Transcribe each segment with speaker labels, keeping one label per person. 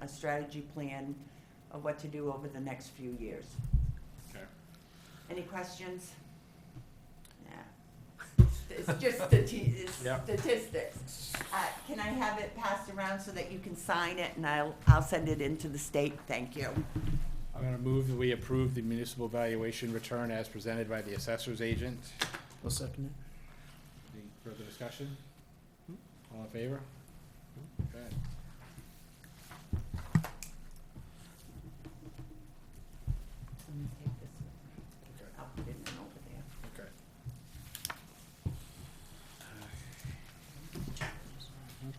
Speaker 1: a strategy plan of what to do over the next few years.
Speaker 2: Okay.
Speaker 1: Any questions? Yeah. It's just stati- it's
Speaker 2: Yeah.
Speaker 1: statistics. Uh, Can I have it passed around so that you can sign it and I'll, I'll send it into the state? Thank you.
Speaker 2: I'm gonna move that we approve the municipal valuation return as presented by the assessor's agent.
Speaker 3: I'll second it.
Speaker 2: Any further discussion? All in favor? Okay.
Speaker 1: Let me take this one.
Speaker 2: Okay.
Speaker 1: I'll put it in over there.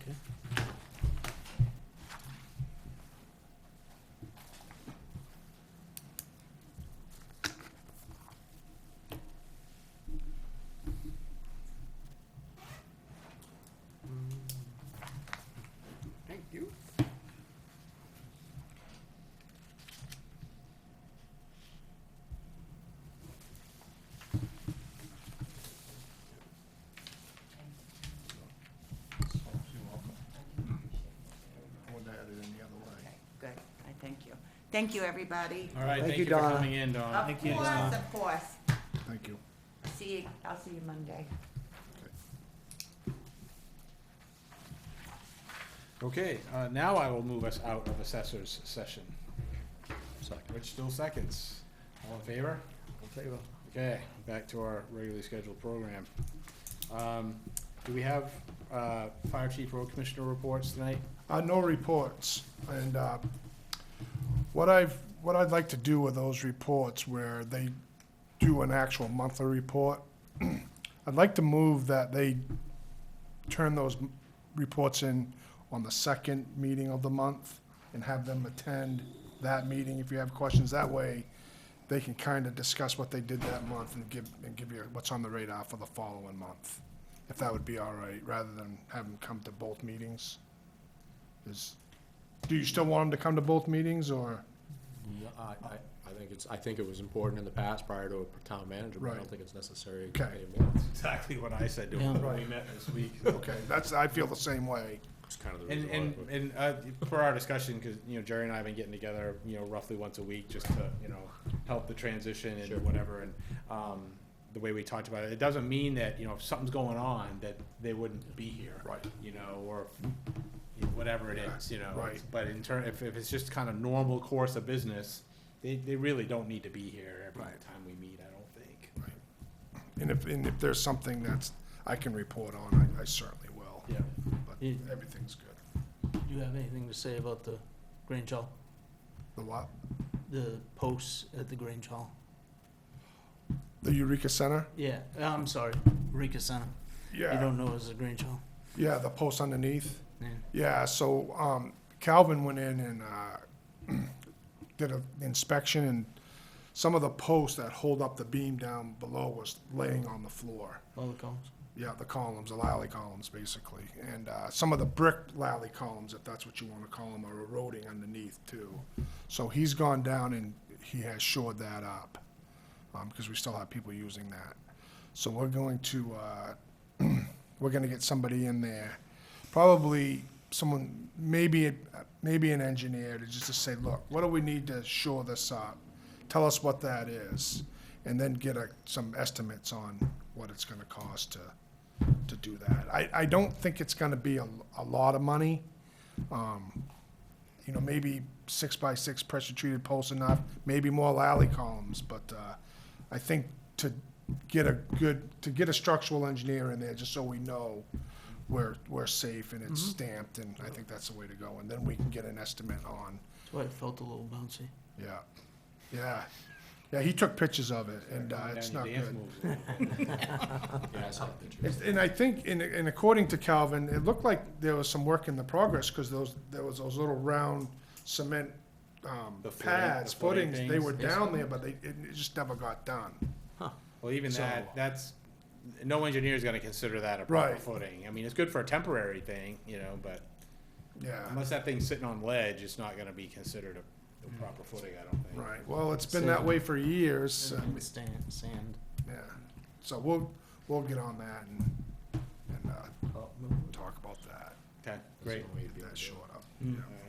Speaker 2: Okay.
Speaker 3: Okay.
Speaker 2: Thank you.
Speaker 1: Okay, good. I thank you. Thank you, everybody.
Speaker 2: All right,
Speaker 3: Thank
Speaker 2: thank
Speaker 3: you,
Speaker 2: you for
Speaker 3: Donna.
Speaker 2: coming in, Donna.
Speaker 1: Of course, of course.
Speaker 4: Thank you.
Speaker 1: See you, I'll see you Monday.
Speaker 2: Okay, uh, now I will move us out of assessor's session.
Speaker 3: Second.
Speaker 2: Which still seconds. All in favor?
Speaker 3: All in favor?
Speaker 2: Okay, back to our regularly scheduled program. Um, Do we have uh, Fire Chief Road Commissioner reports tonight?
Speaker 4: Uh, no reports, and, uh, what I've, what I'd like to do with those reports where they do an actual monthly report, I'd like to move that they turn those m- reports in on the second meeting of the month and have them attend that meeting if you have questions. That way, they can kind of discuss what they did that month and give, and give you what's on the radar for the following month, if that would be all right, rather than have them come to both meetings. Is, do you still want them to come to both meetings, or?
Speaker 5: No, I, I, I think it's, I think it was important in the past prior to a town manager, but I
Speaker 4: Right.
Speaker 5: don't think it's necessary.
Speaker 4: Okay.
Speaker 2: Exactly what I said to
Speaker 3: him
Speaker 2: when we met this week.
Speaker 4: Okay, that's, I feel the same way.
Speaker 5: It's kind of the
Speaker 2: And,
Speaker 5: reason why.
Speaker 2: and,
Speaker 5: but-
Speaker 2: and uh, for our discussion, because, you know, Jerry and I have been getting together, you know, roughly once a week just to, you know, help the transition
Speaker 5: Sure.
Speaker 2: and whatever. And um, the way we talked about it, it doesn't mean that, you know, if something's going on, that they wouldn't be here.
Speaker 4: Right.
Speaker 2: You know, or if- whatever it is, you know.
Speaker 4: Right.
Speaker 2: But in turn, if, if it's just kind of normal course of business, they, they really don't need to be here every
Speaker 4: Right.
Speaker 2: time we meet, I don't think.
Speaker 4: And if, and if there's something that's, I can report on, I, I certainly will.
Speaker 2: Yeah.
Speaker 4: But
Speaker 2: Yeah.
Speaker 4: everything's good.
Speaker 3: Do you have anything to say about the Grange Hall,
Speaker 4: The what?
Speaker 3: the posts at the Grange Hall?
Speaker 4: The Eureka Center?
Speaker 3: Yeah, uh, I'm sorry, Rika Center. You
Speaker 4: Yeah,
Speaker 3: don't know it's the Grange Hall?
Speaker 4: yeah, the post underneath.
Speaker 3: Yeah.
Speaker 4: Yeah, so, um, Calvin went in and, uh, did an inspection and some of the posts that hold up the beam down below was laying on the floor.
Speaker 3: All the columns?
Speaker 4: Yeah, the columns, the lally columns, basically. And uh, some of the brick lally columns, if that's what you want to call them, are eroding underneath too. So he's gone down and he has shored that up because we still have people using that. So we're going to, uh, we're going to get somebody in there, probably someone, maybe, a- maybe an engineer to just to say, look, what do we need to shore this up? Tell us what that is, and then get a, some estimates on what it's going to cost to, to do that. I, I don't think it's going to be a, a lot of money. Um, You know, maybe six by six pressure treated posts enough, maybe more lally columns, but uh, I think to get a good, to get a structural engineer in there, just so we know we're, we're safe and it's stamped, and I think that's the way to go. And then we can get an estimate on,
Speaker 3: That's why it felt a little bouncy.
Speaker 4: yeah, yeah. Yeah, he took pictures of it, and uh, it's not
Speaker 2: Down your dance
Speaker 4: good.
Speaker 2: moves a little bit.
Speaker 5: Yeah, I saw the picture.
Speaker 4: It's- And I think, and, and according to Calvin, it looked like there was some work in the progress, because those, there was those little round cement, um,
Speaker 2: The footing-
Speaker 4: pads,
Speaker 2: the footing
Speaker 4: footings, they
Speaker 2: things.
Speaker 4: were down there, but they, it it just never got done.
Speaker 2: Well, even
Speaker 4: So-
Speaker 2: that, that's, no engineer is gonna consider that a proper
Speaker 4: Right.
Speaker 2: footing. I mean, it's good for a temporary thing, you know, but
Speaker 4: Yeah,
Speaker 2: unless that thing's sitting on ledge, it's not gonna be considered a, a proper footing, I don't think.
Speaker 4: right, well, it's been that way for years,
Speaker 3: And
Speaker 4: and,
Speaker 3: the sand, sand.
Speaker 4: yeah, so we'll, we'll get on that and, and, uh, talk about that,
Speaker 2: Okay,
Speaker 5: That's
Speaker 2: great.
Speaker 5: the way to be
Speaker 4: get that
Speaker 5: able Oh, to do it.
Speaker 4: short up.
Speaker 2: All right.